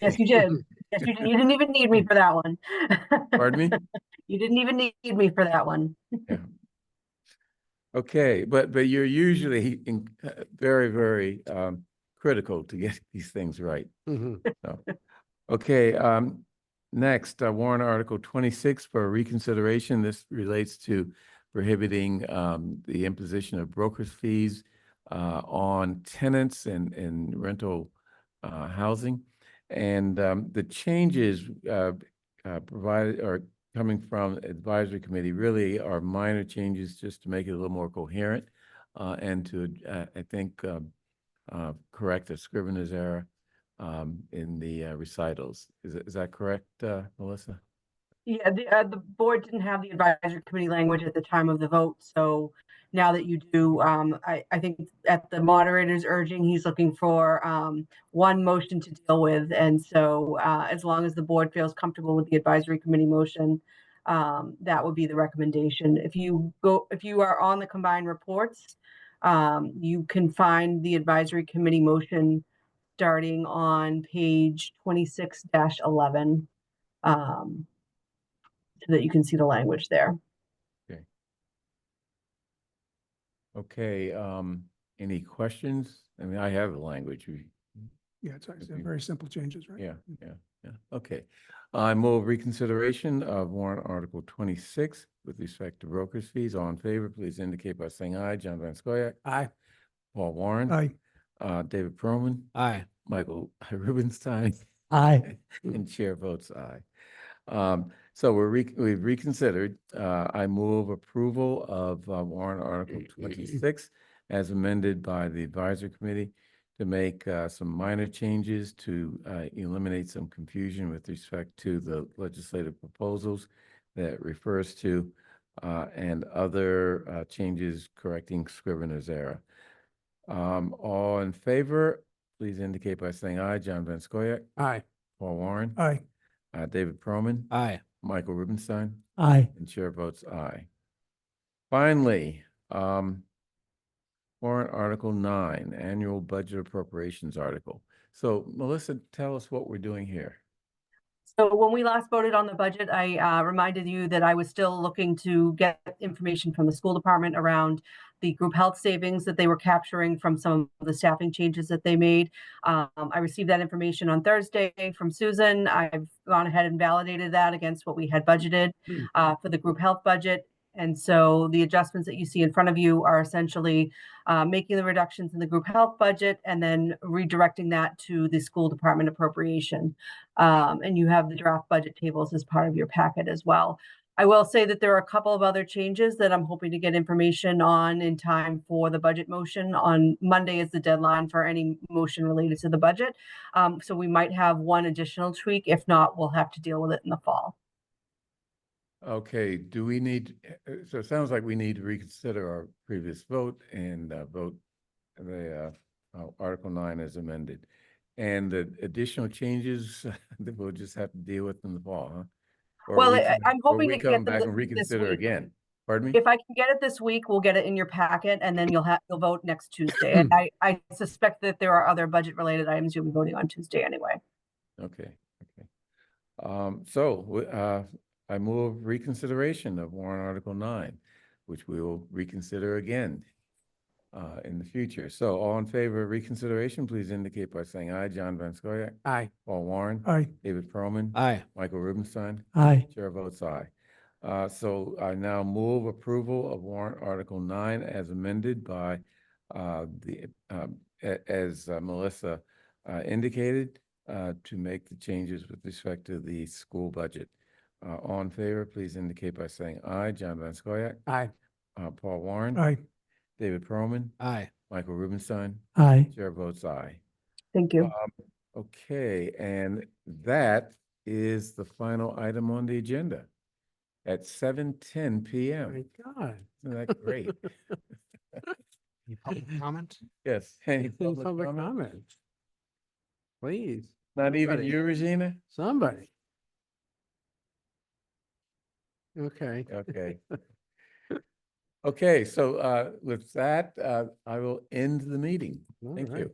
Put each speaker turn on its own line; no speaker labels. Yes, you did. Yes, you, did. you didn't even need me for that one.
Pardon me?
You didn't even need me for that one.
Okay, but, but you're
Mm-hmm.
usually in, uh, very, very, um, critical to get these things right.
Mhm.
Okay, um, next, uh, warrant article twenty-six for reconsideration. This relates to prohibiting, um, the imposition of broker's fees, uh, on tenants and, and rental, uh, housing. And, um, the changes, uh, uh, provided are coming from advisory committee really are minor changes just to make it a little more coherent, uh, and to, uh, I think, uh, uh, correct a scrivener's error um, in the uh, recitals. Is, is that correct, uh, Melissa?
Yeah, the, uh, the board didn't have the advisory committee language at the time of the vote, so now that you do, um, I, I think at the moderator's urging, he's looking for, um, one motion to deal with, and so, uh, as long as the board feels comfortable with the advisory committee motion, um, that would be the recommendation. If you go, if you are on the combined reports, um, you can find the advisory committee motion starting on page twenty-six eleven. Um, so that you can see the language there.
Okay, um, any questions? I mean, I have the language. We-
Yeah, it's actually
Okay.
very simple changes, right?
Yeah, yeah, yeah. Okay. I move reconsideration of warrant article twenty-six with respect to broker's fees. All in favor, please indicate by saying aye. John Van Scoyac,
Aye.
Paul Warren.
Aye.
Uh, David Perlman,
Aye.
Michael Rubenstein,
Aye.
And chair votes aye. Um, so we're re, we've reconsidered. Uh, I move approval of uh, warrant article twenty-six as amended by the advisory committee to make, uh, some minor changes to, uh, eliminate some confusion with respect to the legislative proposals that it refers to, uh, and other, uh, changes correcting Scrivener's error. Um, all in favor, please indicate by saying aye. John Van Scoyac,
Aye.
Paul Warren.
Aye.
Uh, David Perlman.
Aye.
Michael Rubenstein.
Aye.
And chair votes aye. Finally, um, warrant article nine, annual budget appropriations article. So Melissa, tell us what we're doing here.
So when we last voted on the budget, I uh, reminded you that I was still looking to get information from the school department around the group health savings that they were capturing from some of the staffing changes that they made. Um, I received that information on Thursday from Susan. I've gone ahead and validated that against what we had budgeted
Hmm.
uh, for the group health budget. And so the adjustments that you see in front of you are essentially uh, making the reductions in the group health budget and then redirecting that to the school department appropriation. Um, and you have the draft budget tables as part of your packet as well. I will say that there are a couple of other changes that I'm hoping to get information on in time for the budget motion. On Monday is the deadline for any motion related to the budget. Um, so we might have one additional tweak. If not, we'll have to deal with it in the fall.
Okay, do we need, uh, so it sounds like we need to reconsider our previous vote and uh, vote the uh, uh, Article 9 as amended. And the additional changes that we'll just have to deal with in the fall, huh? Or
Well,
we
I-
can-
I'm
or
hoping
we
to get
come
them
back
thi-
and
this
reconsider
week.
again. Pardon me?
If I can get it this week, we'll get it in your packet and then you'll have, you'll vote next Tuesday. And I, I suspect that there are other budget related items you'll be voting on Tuesday anyway.
Okay, okay. Um, So w- uh, I move reconsideration of warrant Article 9, which we will reconsider again uh, in the future. So all in favor of reconsideration, please indicate by saying aye. John Van Scoyac,
Aye.
Paul Warren,
Aye.
David Perlman,
Aye.
Michael Rubenstein,
Aye.
Chair votes aye. Uh, so I now move approval of warrant article nine as amended by, uh, the, um, a- as uh, Melissa, uh, indicated, uh, to make the changes with respect to the school budget. Uh, all in favor, please indicate by saying aye. John Van Scoyac,
Aye.
uh, Paul Warren.
Aye.
David Perlman,
Aye.
Michael Rubenstein,
Aye.
Chair votes aye.
Thank you.
Okay, and that is the final item on the agenda at seven ten PM.
My God.
Isn't that Oh, great?
Any public comment?
Yes. Any
Any
public
public
comment?
comment? Please,
Not even
Anybody?
you, Regina?
somebody. Okay.
Okay. Okay, so uh, with that, uh, I will end the meeting.
all
Thank
right.
you.